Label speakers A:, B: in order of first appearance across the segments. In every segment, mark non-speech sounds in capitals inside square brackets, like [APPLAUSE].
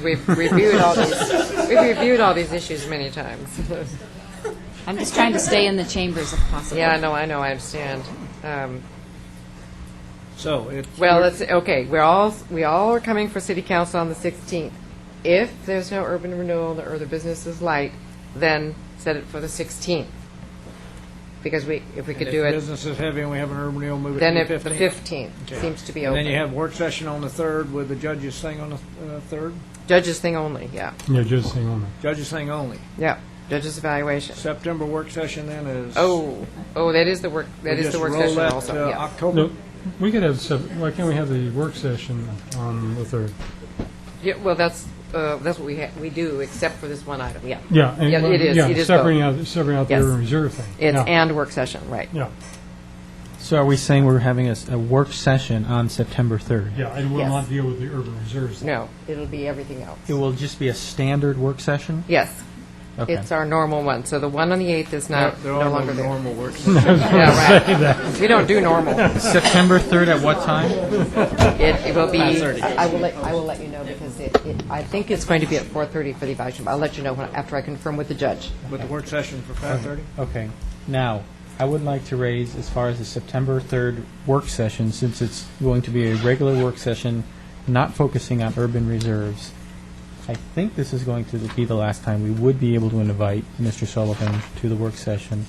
A: We've reviewed all these, we've reviewed all these issues many times.
B: I'm just trying to stay in the chambers if possible.
A: Yeah, I know, I know, I understand. Um,
C: So it,
A: Well, let's, okay, we're all, we all are coming for city council on the 16th. If there's no urban renewal or the business is light, then set it for the 16th. Because we, if we could do
C: if
A: it,
C: business is heavy and we have an urban renewal, move it
A: then if
C: to
A: the
C: the 15th.
A: 15th
C: Okay.
A: seems to be
C: And then you
A: open.
C: have work session on the 3rd with the judges thing on the uh, 3rd?
A: Judges thing only, yeah,
D: Yeah, just hang on.
C: Judges thing only.
A: yeah, judges evaluation.
C: September work session then is.
A: Oh, oh, that is the work, that is the work session also,
C: We just roll that uh, to
A: yeah.
C: October.
D: No, we could have, sep- why can't we have the work session on the 3rd?
A: Yeah, well, that's, uh, that's what we, ha- we do, except for this one item, yeah.
D: Yeah. and-
A: Yeah, it is,
D: yeah,
A: it is
D: Separating out, separating out the
A: Yes.
D: urban reserve thing.
A: It's
D: Yeah,
A: and work session, right.
D: Yeah,
E: So are we saying we're having a, s- a work session on September 3rd?
D: yeah, it will
A: Yes.
D: not deal with the urban reserves. thing.
A: No, it'll be everything else.
E: It will just be a standard work session?
A: Yes,
E: Okay.
A: it's our normal one, so the one on the 8th is
C: They're-
A: not,
C: They're
A: no
C: all
A: longer there.
C: normal work sessions.
A: Yeah, right. We don't do normal.
E: September 3rd at what time?
A: It it will be, I I will let, I will let you know because it, it- I think it's going to be at 4:30 for the evaluation. but I'll let you know when- after I confirm with the judge.
C: With the work session for 5:30?
E: Okay. Now, I would like to raise as far as the September 3rd work session, since it's going to be a regular work session, not focusing on urban reserves. I think this is going to be the last time we would be able to invite Mr. Sullivan to the work session.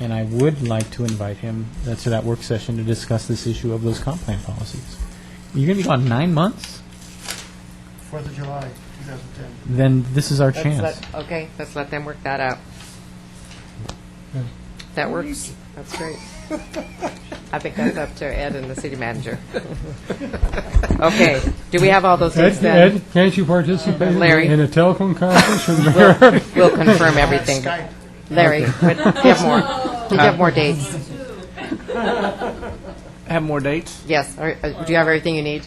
E: And I would like to invite him uh, to that work session to discuss this issue of those comp plan policies. You're going to be gone nine months?
F: Fourth of July, 2010.
E: then this is our
A: Let's
E: chance.
A: let- Okay, let's let them work that out. That works, that's great. I think that's up to Ed and the city manager. Okay, do we have all those things
D: Ed,
A: then?
D: Ed, can't you participate
A: Larry.
D: in a telephone conference [LAUGHS] with the mayor?
A: We'll we'll confirm everything. Larry, what- do you have more? Do you have more dates?
C: Have more dates?
A: Yes, Are- uh, do you have everything you need?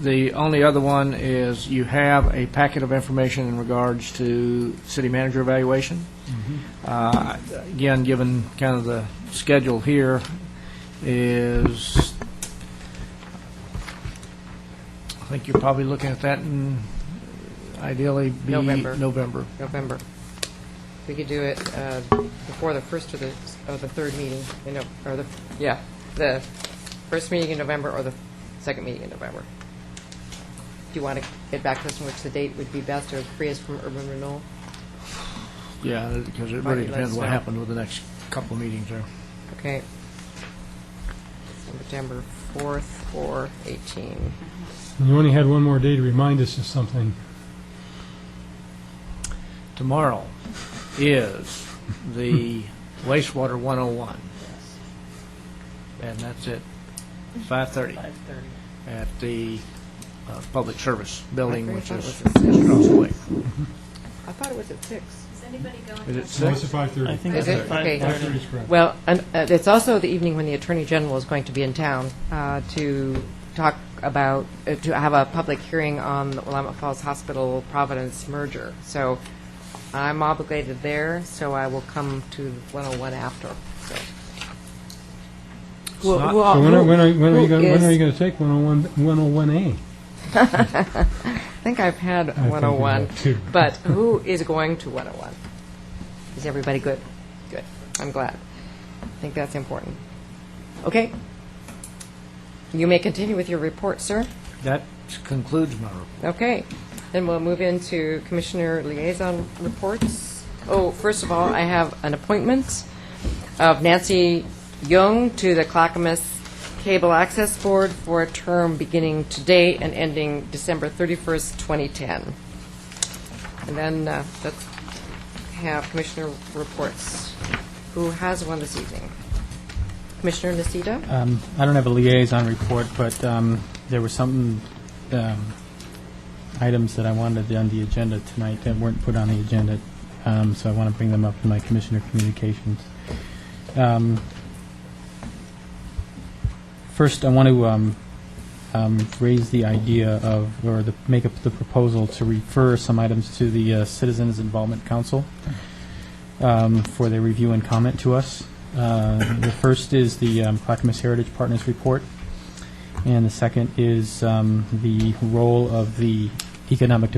C: The only other one is you have a packet of information in regards to city manager evaluation. Uh, Again, given kind of the schedule here is, I think you're probably looking at that in ideally be.
A: November.
C: November.
A: November. We could do it uh, before the first or the, or the third meeting, you know, or the, yeah, the first meeting in November or the second meeting in November. Do you want to get back to us on which the date would be best or free us from urban renewal?
C: Yeah, because it
A: Might
C: really
A: be
C: depends
A: less
C: what
A: now.
C: happens with the next couple of meetings there.
A: Okay. September 4th or 18.
D: You only had one more day to remind us of something.
C: Tomorrow is the wastewater 101. And that's at 5:30 at the uh, Public Service Building,
A: I
C: which
A: thought it
C: is
A: was at six.
C: across the way.
A: I thought it was at 6.
C: Is it
D: So it's
C: 6?
D: at 5:30.
E: I think
A: Is it? Okay.
D: 5:30 is correct.
A: Well, and uh, it's also the evening when the Attorney General is going to be in town uh, to talk about, uh, to have a public hearing on the Willamette Falls Hospital Providence merger. So I'm obligated there, so I will come to 101 after. So Who-
C: not-
A: who all-
D: So when are, when are, when are you
A: who
D: going, when are
A: is-
D: you going to take 101, 101A?
A: I think I've had
D: you
A: 101,
D: have too.
A: but who is going to 101? Is everybody good? Good. I'm glad. I think that's important. Okay. You may continue with your report, sir.
C: That concludes my report.
A: Okay, then we'll move into Commissioner Liaison Reports. Oh, first of all, I have an appointment of Nancy Young to the Clackamas Cable Access Board for a term beginning today and ending December 31st, 2010. And then uh, let's have Commissioner Reports. Who has one this evening? Commissioner Nacita?
E: Um, I don't have a liaison report, but um, there were some um, items that I wanted on the agenda tonight that weren't put on the agenda, um, so I want to bring them up in my commissioner communications. Um, First, I want to um, um, raise the idea of, or the- make up the proposal to refer some items to the uh, Citizens Involvement Council um, for their review and comment to us. Uh, The first is the um, Clackamas Heritage Partners Report, and the second is um, the role of the Economic Development